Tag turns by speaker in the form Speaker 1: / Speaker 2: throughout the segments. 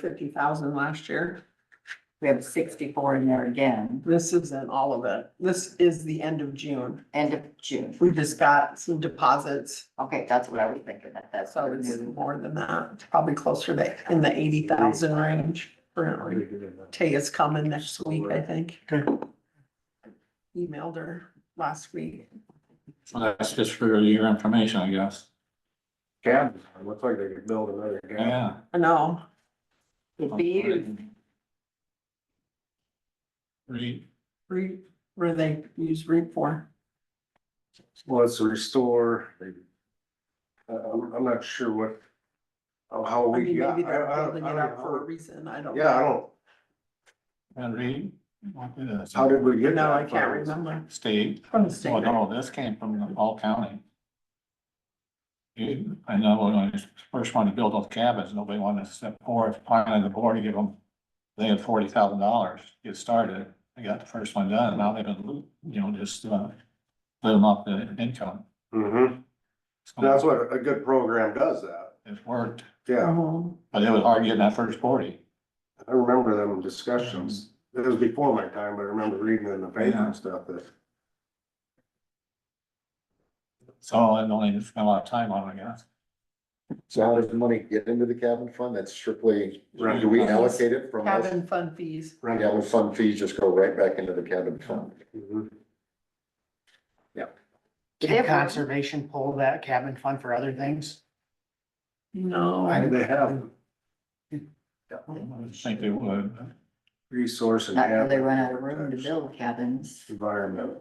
Speaker 1: fifty thousand last year.
Speaker 2: We have sixty-four in there again,
Speaker 1: This isn't all of it. This is the end of June.
Speaker 2: end of June.
Speaker 1: We just got some deposits,
Speaker 2: Okay, that's what I was thinking, that that's.
Speaker 1: so it's more than that. It's Probably closer to, in the eighty thousand range. currently. Tay is coming next week, I think.
Speaker 3: Okay.
Speaker 1: Emailed her last week.
Speaker 4: Well, That's just for your information, I guess.
Speaker 3: Cabins, it looks like they could build another cabin.
Speaker 4: Yeah.
Speaker 1: I know.
Speaker 2: It'd be you.
Speaker 4: Read,
Speaker 1: Re, where they use REAP for.
Speaker 3: Well, it's a restore, they. I, I'm, I'm not sure what, of how
Speaker 1: I
Speaker 3: we
Speaker 1: mean,
Speaker 3: got.
Speaker 1: maybe they're
Speaker 3: I- I don't-
Speaker 1: building
Speaker 3: I
Speaker 1: it
Speaker 3: don't
Speaker 1: up
Speaker 3: know.
Speaker 1: for a reason. I don't.
Speaker 3: Yeah, I don't,
Speaker 4: and read. uh, What did it-
Speaker 3: how did we get?
Speaker 1: No,
Speaker 3: that
Speaker 1: I can't
Speaker 3: far?
Speaker 1: remember.
Speaker 4: State,
Speaker 1: From the
Speaker 4: well,
Speaker 1: state.
Speaker 4: no, this came from the Ball County. You- I know when I first wanted to build those cabins, nobody wanted to step forward, finally the board to give them, they had forty thousand dollars, to get started. They got the first one done, now they've been, you know, just, uh, living off the income.
Speaker 3: Mhm.
Speaker 4: So
Speaker 3: that's what, a good program does that,
Speaker 4: It's worked,
Speaker 3: yeah,
Speaker 1: Oh,
Speaker 4: but it was hard getting that first forty.
Speaker 3: I remember them discussions, it was before my time, but I remember reading in the paper
Speaker 4: Mm-hmm. Yeah.
Speaker 3: and stuff that.
Speaker 4: So I only spent a lot of time on, it, I guess.
Speaker 5: So how does the money get into the cabin fund? That's strictly,
Speaker 3: Right.
Speaker 5: do we allocate it from us?
Speaker 1: Cabin fund fees.
Speaker 5: Cabin fund fees just go right back into the cabin fund.
Speaker 3: Mhm.
Speaker 2: Did it
Speaker 6: Can
Speaker 2: work?
Speaker 6: conservation pull that cabin fund for other things?
Speaker 1: No.
Speaker 3: They have
Speaker 4: I would think they would.
Speaker 3: resource and
Speaker 2: Not till they
Speaker 3: have
Speaker 2: run out of room to build cabins.
Speaker 3: environment.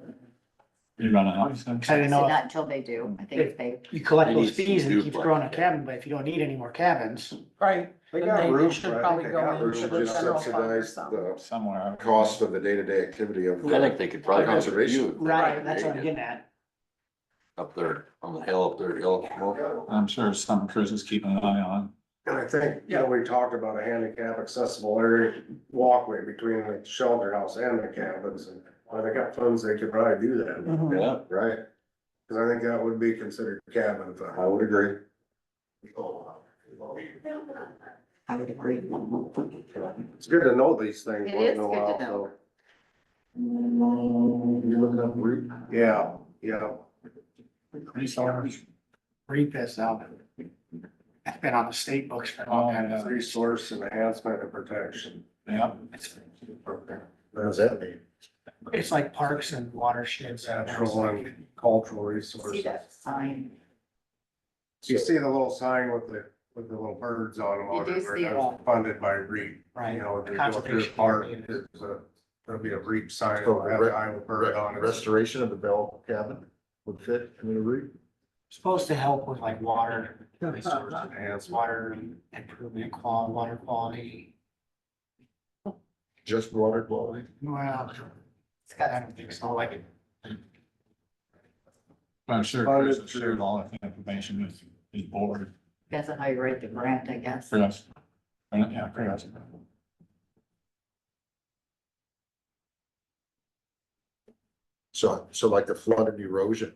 Speaker 4: You run a house.
Speaker 6: Cause I didn't
Speaker 2: So
Speaker 6: know
Speaker 2: not
Speaker 6: if
Speaker 2: until they do, I think if they,
Speaker 6: you collect
Speaker 5: They
Speaker 6: those
Speaker 5: need to
Speaker 6: fees and it keeps
Speaker 5: duplex.
Speaker 6: growing a cabin, but if you don't need any more cabins,
Speaker 1: Right.
Speaker 3: They
Speaker 1: Then
Speaker 3: got
Speaker 1: they- they
Speaker 3: room,
Speaker 1: should
Speaker 3: for it. I
Speaker 1: probably
Speaker 3: think they
Speaker 1: go
Speaker 3: got
Speaker 1: into
Speaker 3: room
Speaker 5: We
Speaker 1: the
Speaker 5: should
Speaker 3: for
Speaker 5: just
Speaker 3: stuff.
Speaker 1: general-
Speaker 5: subsidize the
Speaker 4: Somewhere.
Speaker 5: cost of the day-to-day activity of.
Speaker 7: I think they could probably.
Speaker 5: Conservation.
Speaker 6: right, that's what I'm getting at.
Speaker 7: Up there, on the hill, up there, hill.
Speaker 4: I'm sure some cruises keeping an eye on.
Speaker 3: And I think, you know, we talked about a handicap accessible area walkway between the shelter house and the cabins. and Well, they got funds, they could probably do that,
Speaker 1: Mhm.
Speaker 7: Yeah,
Speaker 5: Right,
Speaker 3: cause I think that would be considered cabin. fund.
Speaker 5: I would agree.
Speaker 2: I would agree.
Speaker 3: It's good to know these things.
Speaker 2: It
Speaker 3: once
Speaker 2: is
Speaker 3: in
Speaker 2: good
Speaker 3: a
Speaker 2: to
Speaker 3: while,
Speaker 2: know.
Speaker 5: You're looking up route?
Speaker 3: so- Yeah, yeah.
Speaker 6: Resource. Reap this out. It's been on the state books for a long time.
Speaker 3: Resource enhancement and protection.
Speaker 4: Yeah.
Speaker 3: What does that mean?
Speaker 6: It's like parks and watersheds.
Speaker 3: Natural and cultural resources.
Speaker 2: See that sign?
Speaker 3: So you see the little sign with the, with the little birds on them,
Speaker 2: You
Speaker 3: on
Speaker 2: do
Speaker 3: it, where
Speaker 2: see
Speaker 3: that was
Speaker 2: it.
Speaker 3: funded by REAP.
Speaker 6: Right.
Speaker 3: You know, if you go through the
Speaker 6: Conservation
Speaker 3: park,
Speaker 6: area.
Speaker 3: there's a, there'll be a REAP sign,
Speaker 5: So
Speaker 3: it'll have
Speaker 5: re-
Speaker 3: the Iowa bird on it.
Speaker 5: uh, Restoration of the Bell cabin would fit into the route?
Speaker 6: Supposed to help with like water, resource
Speaker 3: Enhancement.
Speaker 6: water improvement, quality, water quality.
Speaker 5: Just water quality?
Speaker 6: Well,
Speaker 2: It's
Speaker 6: I
Speaker 2: got,
Speaker 6: don't think so, like.
Speaker 4: I'm sure
Speaker 3: Funded
Speaker 4: cruises
Speaker 3: through-
Speaker 4: shared all that information with the board
Speaker 2: that's how you write the grant, I guess.
Speaker 4: for us. And, Yeah, for us.
Speaker 5: So, so like the flood and erosion.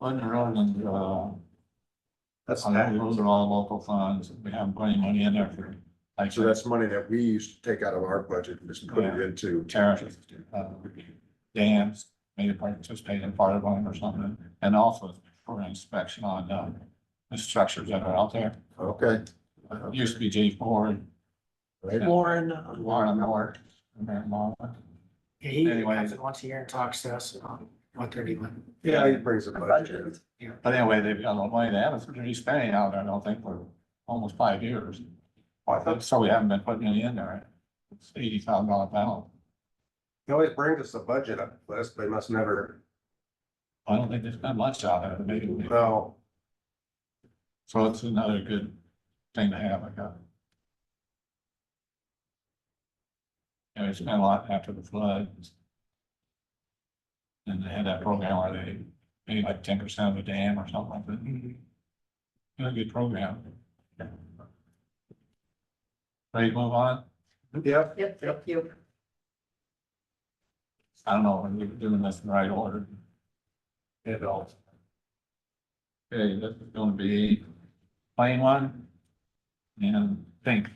Speaker 4: London Road and, uh,
Speaker 3: That's
Speaker 4: on that, those are all local funds. We haven't put any money in there for like
Speaker 5: So that's money that we used to take out of our budget and just put it into.
Speaker 4: tariff, uh, dams, maybe participate in part of one or something. And also for inspection on, uh, the structures that are out there.
Speaker 5: Okay.
Speaker 4: Used to be J four,
Speaker 5: Right.
Speaker 1: Lauren, uh,
Speaker 4: Lauren Miller, Mary Miller.
Speaker 6: Yeah, He
Speaker 4: Anyway.
Speaker 6: comes in once a year and talks to us about what they're doing.
Speaker 3: Yeah, he brings a
Speaker 1: the
Speaker 3: budget. in.
Speaker 1: budget.
Speaker 4: But anyway, they've got a lot of money. They haven't really spent any out there, I don't think, for almost five years. So we haven't been putting any in there. It's eighty thousand dollar panel.
Speaker 3: He always brings us a budget up list, but he must never,
Speaker 4: I don't think they spent much out of it, maybe.
Speaker 3: no,
Speaker 4: So it's another good thing to have, I got. And it's been a lot after the flood. And they had that program where they paid like ten percent of the dam or something like that. It was A good program. Ready to move on?
Speaker 3: yep,
Speaker 2: Yep, thank you.
Speaker 4: I don't know, we're doing this in the right order. It all. Okay, this is gonna be plain one. And pink.